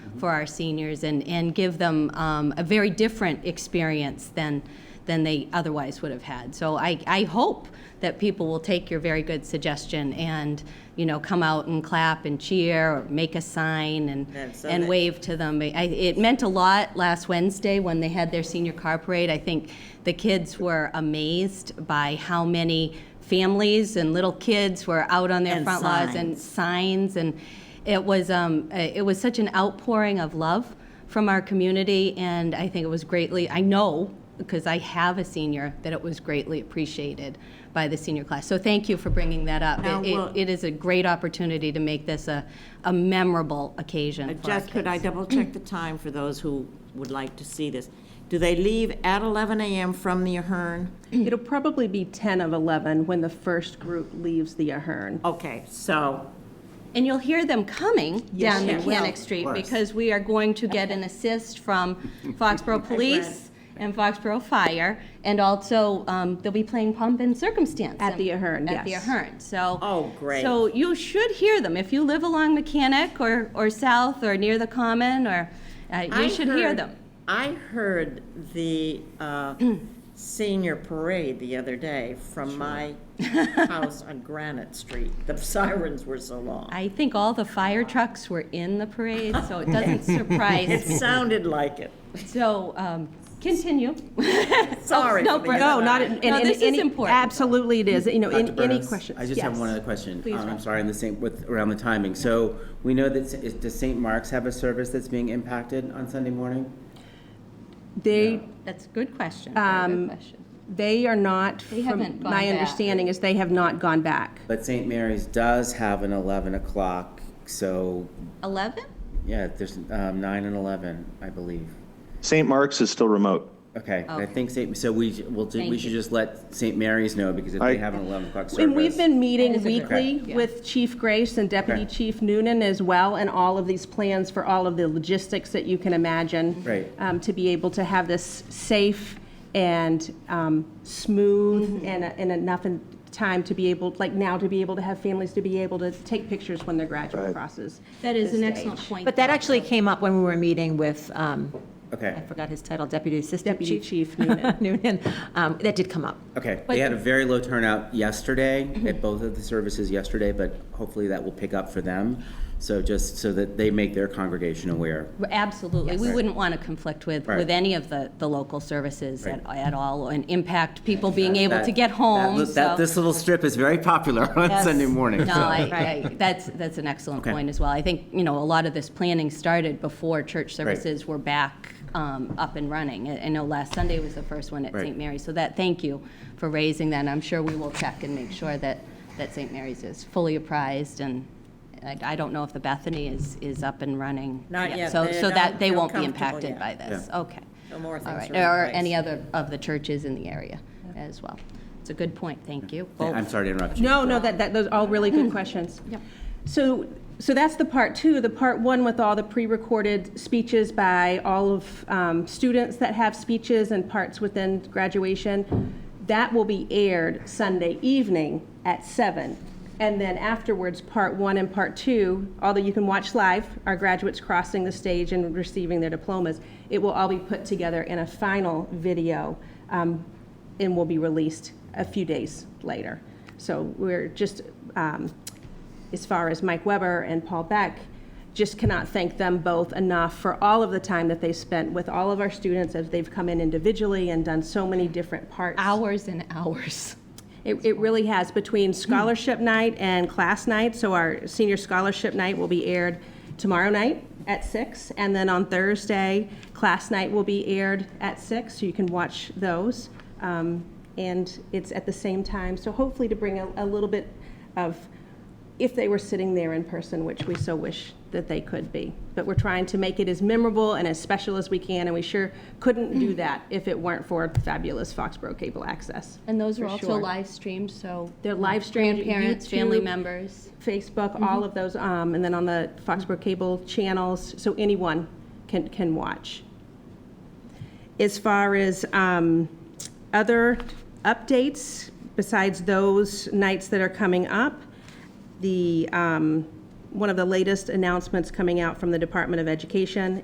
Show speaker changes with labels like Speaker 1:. Speaker 1: for our seniors and, and give them um, a very different experience than, than they otherwise would have had. So I, I hope that people will take your very good suggestion and, you know, come out and clap and cheer or make a sign
Speaker 2: And
Speaker 1: and,
Speaker 2: so
Speaker 1: and
Speaker 2: that-
Speaker 1: wave to them. I, it meant a lot last Wednesday when they had their senior car parade. I think the kids were amazed by how many families and little kids were out on their
Speaker 2: And
Speaker 1: front lawns and signs
Speaker 2: signs.
Speaker 1: and it was um, uh, it was such an outpouring of love from our community and I think it was greatly I know because I have a senior that it was greatly appreciated by the senior class. So thank you for bringing that up.
Speaker 3: Now,
Speaker 1: It- it-
Speaker 3: will-
Speaker 1: it is a great opportunity to make this a, a memorable occasion for our
Speaker 2: Jess, could I
Speaker 1: kids.
Speaker 2: double check the time for those who would like to see this? Do they leave at 11 a.m. from the Ahern?
Speaker 4: It'll probably be 10 of 11 when the first group leaves the Ahern.
Speaker 2: Okay, so
Speaker 1: And you'll hear them coming down
Speaker 2: you
Speaker 1: Mechanic
Speaker 2: will.
Speaker 1: Street
Speaker 2: Of course.
Speaker 1: because we are going to get an assist from Foxborough Police and Foxborough Fire. And also, um, they'll be playing Pomp and Circumstance.
Speaker 4: At the Ahern,
Speaker 1: At the
Speaker 4: yes.
Speaker 1: Ahern, so.
Speaker 2: Oh, great.
Speaker 1: So you should hear them. If you live along Mechanic or, or south or near the Common or, uh,
Speaker 2: I
Speaker 1: you should hear
Speaker 2: heard-
Speaker 1: them.
Speaker 2: I heard the uh, senior parade the other day from my house on Granite Street. The sirens were so long.
Speaker 1: I think all the fire trucks were in the parade, so it doesn't surprise
Speaker 2: It
Speaker 1: me.
Speaker 2: sounded like it.
Speaker 1: So, um, continue.
Speaker 2: Sorry.
Speaker 1: no,
Speaker 2: for
Speaker 1: Brooke.
Speaker 2: the
Speaker 4: No, not,
Speaker 2: interruption.
Speaker 4: in
Speaker 1: No,
Speaker 4: in- in
Speaker 1: this is
Speaker 4: any-
Speaker 1: important.
Speaker 4: Absolutely it is, you know, in
Speaker 5: Dr.
Speaker 4: any
Speaker 5: Burns,
Speaker 4: question.
Speaker 5: I just have one
Speaker 4: Yes.
Speaker 5: other question.
Speaker 1: Please,
Speaker 5: Um,
Speaker 1: Rob.
Speaker 5: I'm sorry, in the same, with, around the timing. So we know that, s- does St. Mark's have a service that's being impacted on Sunday morning?
Speaker 4: They,
Speaker 1: That's a good question, very good question.
Speaker 4: they are not,
Speaker 1: They haven't
Speaker 4: from
Speaker 1: gone
Speaker 4: my
Speaker 1: back.
Speaker 4: understanding is they have not gone back.
Speaker 5: But St. Mary's does have an 11 o'clock, so,
Speaker 1: 11?
Speaker 5: yeah, there's um, 9 and 11, I believe.
Speaker 6: St. Mark's is still remote.
Speaker 5: Okay, I
Speaker 1: Okay.
Speaker 5: think, St. so we, j- we'll, ju-
Speaker 1: Thank
Speaker 5: we
Speaker 1: you.
Speaker 5: should just let St. Mary's know, because if
Speaker 6: I-
Speaker 5: they have an 11 o'clock service.
Speaker 4: And we've been
Speaker 1: That is
Speaker 4: meeting
Speaker 1: a good
Speaker 4: weekly
Speaker 1: point, yeah.
Speaker 4: with Chief Grace and Deputy
Speaker 5: Okay.
Speaker 4: Chief Noonan as well, and all of these plans for all of the logistics that you can imagine.
Speaker 5: Right.
Speaker 4: um, To be able to have this safe and um,
Speaker 1: Mm-hmm.
Speaker 4: smooth and, and enough in time to be able, like now, to be able to have families to be able to take pictures when their graduate
Speaker 6: Right.
Speaker 4: crosses.
Speaker 1: That is
Speaker 4: the
Speaker 1: an excellent
Speaker 4: stage.
Speaker 1: point.
Speaker 7: But that actually came up when we were meeting with, um, I
Speaker 5: Okay,
Speaker 7: forgot his title, Deputy Assistant
Speaker 4: Deputy
Speaker 7: Chief.
Speaker 4: Chief Noonan.
Speaker 7: Noonan. Um, That did come up.
Speaker 5: okay. They had a very low turnout yesterday
Speaker 1: Mm-hmm.
Speaker 5: at both of the services yesterday, but hopefully that will pick up for them. So just so that they make their congregation aware.
Speaker 1: Absolutely. We wouldn't want to conflict with,
Speaker 5: Right.
Speaker 1: with any of the, the local services at, at all and impact people being
Speaker 5: That-
Speaker 1: able to
Speaker 5: that-
Speaker 1: get home,
Speaker 5: that-
Speaker 1: so.
Speaker 5: that- This little strip is very popular on
Speaker 1: Yes.
Speaker 5: Sunday morning.
Speaker 1: No,
Speaker 5: so-
Speaker 1: I, I, that's, that's an excellent
Speaker 5: Okay.
Speaker 1: point as well. I think, you know, a lot of this planning started before church services were back, um, up and running. I I know last Sunday was the first one at
Speaker 5: Right.
Speaker 1: St. Mary's, so that, thank you for raising that. and I'm sure we will check and make sure that, that St. Mary's is fully apprised and I, I don't know if the Bethany is, is up and running.
Speaker 2: Not yet.
Speaker 1: So,
Speaker 2: They
Speaker 1: so that,
Speaker 2: don't
Speaker 1: they
Speaker 2: feel
Speaker 1: won't be
Speaker 2: comfortable
Speaker 1: impacted
Speaker 2: yet.
Speaker 1: by this,
Speaker 5: Yeah.
Speaker 1: okay.
Speaker 2: No more
Speaker 1: All
Speaker 2: things
Speaker 1: right, or
Speaker 2: are in place.
Speaker 1: any other of the churches in the area as well. It's a good point, thank you. both.
Speaker 5: I'm sorry to interrupt you.
Speaker 4: No, no, that, that, those are all really good questions. So, so that's the part two, the part one with all the pre-recorded speeches by all of um, students that have speeches and parts within graduation. That will be aired Sunday evening at seven. And then afterwards, part one and part two, although you can watch live, our graduates crossing the stage and receiving their diplomas, it will all be put together in a final video um, and will be released a few days later. So we're just, um, as far as Mike Weber and Paul Beck, just cannot thank them both enough for all of the time that they spent with all of our students as they've come in individually and done so many different parts.
Speaker 1: Hours and hours.
Speaker 4: It, it really has, between scholarship night and class night, so our senior scholarship night will be aired tomorrow night at six, and then on Thursday, class night will be aired at six, so you can watch those. Um, And it's at the same time, so hopefully to bring a, a little bit of, if they were sitting there in person, which we so wish that they could be. But we're trying to make it as memorable and as special as we can, and we sure couldn't do that if it weren't for fabulous Foxborough Cable Access.
Speaker 1: And those are
Speaker 4: For
Speaker 1: also
Speaker 4: sure.
Speaker 1: live streamed, so.
Speaker 4: They're live streamed to
Speaker 1: Grandparents, family
Speaker 4: YouTube.
Speaker 1: members.
Speaker 4: Facebook, all of those, um, and then on the Foxborough Cable channels, so anyone can, can watch. As far as um, other updates, besides those nights that are coming up, the um, one of the latest announcements coming out from the Department of Education